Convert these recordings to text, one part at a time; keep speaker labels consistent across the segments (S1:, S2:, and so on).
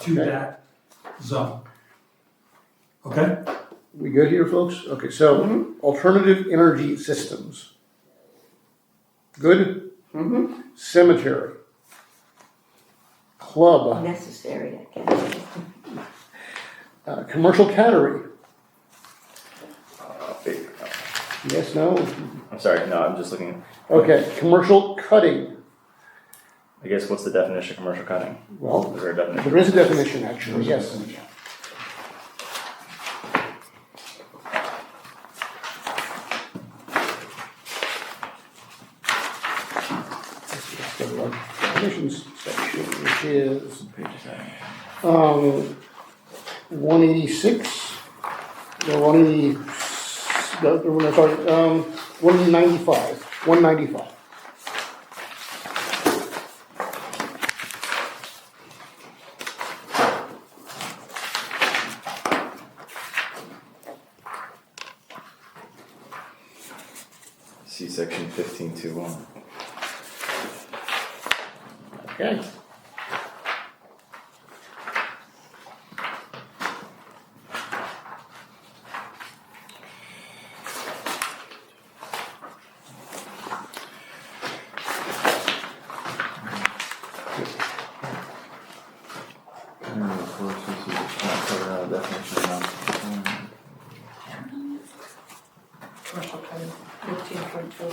S1: to
S2: Okay.
S1: that zone. Okay?
S2: We good here, folks? Okay, so alternative energy systems. Good?
S3: Mhm.
S2: Cemetery. Club,
S3: Necessary, I guess.
S2: uh, commercial cattery. Yes, no?
S4: I'm sorry, no, I'm just looking,
S2: Okay, commercial cutting.
S4: I guess what's the definition of commercial cutting?
S2: Well,
S4: Is there a definition?
S2: there is a definition, actually, yes. Definitions section, which is Um, one eighty-six, no, one eighty, no, no, no, sorry, um, one ninety-five, one ninety-five.
S4: See section fifteen two one.
S2: Okay.
S4: uh,
S3: Commercial code, fifteen point two.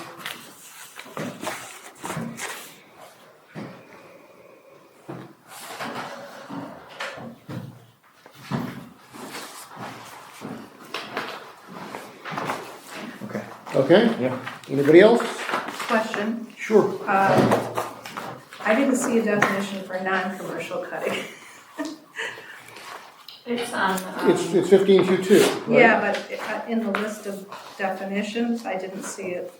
S4: Okay.
S2: Okay?
S4: Yeah.
S2: Anybody else?
S5: Question,
S2: Sure.
S5: uh, I didn't see a definition for non-commercial cutting.
S6: It's on,
S2: It's,
S6: um,
S2: it's fifteen two two, right?
S5: Yeah, but it- uh, in the list of definitions, I didn't see it.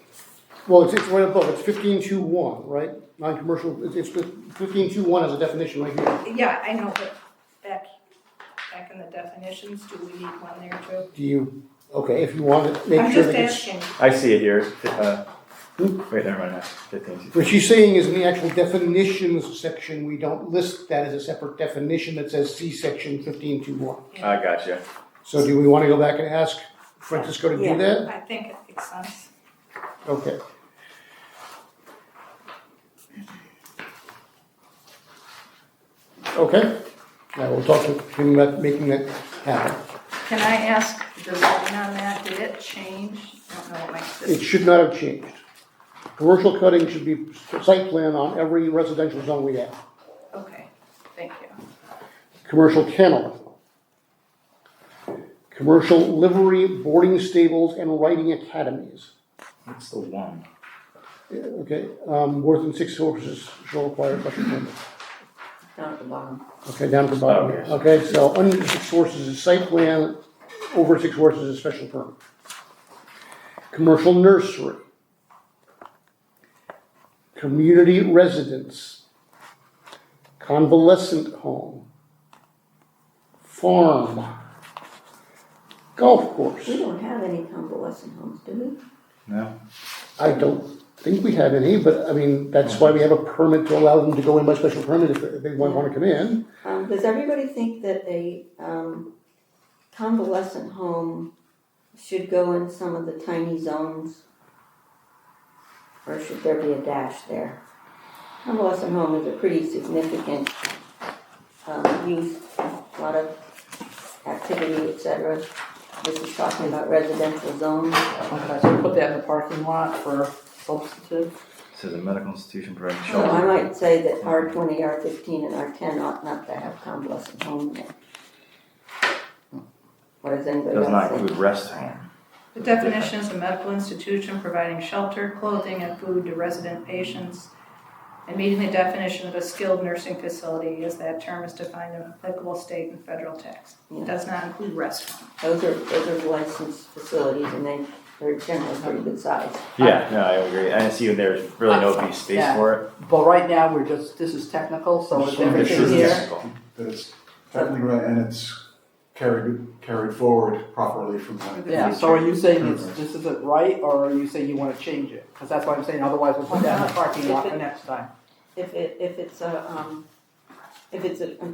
S2: Well, it's, it's right above, it's fifteen two one, right? Non-commercial, it's, it's fifteen two one as a definition right here.
S5: Yeah, I know, but back, back in the definitions, do we need one there too?
S2: Do you, okay, if you want to make
S5: I'm
S2: sure
S5: just
S2: that it's.
S5: asking,
S4: I see it here, uh,
S2: Hmm?
S4: wait, never mind, fifteen two.
S2: What she's saying is in the actual definitions section, we don't list that as a separate definition that says see section fifteen two one.
S4: I gotcha.
S2: So do we want to go back and ask Francisco to do
S3: Yeah.
S2: that?
S5: I think it makes sense.
S2: Okay. Okay, I will talk to him about making that happen.
S5: Can I ask, the zoning on that, did it change? I don't know what makes
S2: It
S5: this,
S2: should not have changed. Commercial cutting should be site plan on every residential zone we have.
S5: okay, thank you.
S2: Commercial kennel. Commercial livery, boarding stables, and riding academies.
S4: What's the one?
S2: Okay, um, more than six horses shall require a special permit.
S3: Down at the bottom.
S2: Okay, down at the bottom,
S4: Oh, yes.
S2: okay, so under six horses is site plan, over six horses is special permit. Commercial nursery. Community residence. Convalescent home. Farm. Golf
S3: We
S2: course,
S3: don't have any convalescent homes, do we?
S4: No?
S2: I don't think we have any, but I mean, that's why we have a permit to allow them to go in by special permit if if they wanna come in.
S3: Um, does everybody think that a, um, convalescent home should go in some of the tiny zones? Or should there be a dash there? Convalescent home is a pretty significant, um, use, a lot of activity, et cetera. This is talking about residential zones.
S7: Okay, so put that in the parking lot for substitute.
S4: Says a medical institution providing
S3: So Oh, I
S4: shelter.
S3: might say that R twenty, R fifteen, and R ten ought not to have convalescent home in it. What does anybody
S4: Does
S3: else
S4: not
S3: think?
S4: include rest home.
S5: The definition is a medical institution providing shelter, clothing, and food to resident patients. And meeting the definition of a skilled nursing facility as that term is defined in applicable state and federal tax. It does not include rest home.
S3: Those are, those are licensed facilities and they, they're generally pretty good size.
S4: Yeah, no, I agree, and I see there's really no be space
S7: Yeah.
S4: for it.
S7: But right now, we're just, this is technical, so
S8: Just
S7: is
S8: wanna make
S7: everything
S8: sure
S7: here?
S8: that's- That it's technically right and it's carried, carried forward properly from that.
S7: Yeah, so are you saying it's, this isn't right, or are you saying you wanna change it? Cause that's why I'm saying, otherwise we'll put that in the parking lot for next time.
S3: If it, if it's a, um, if it's a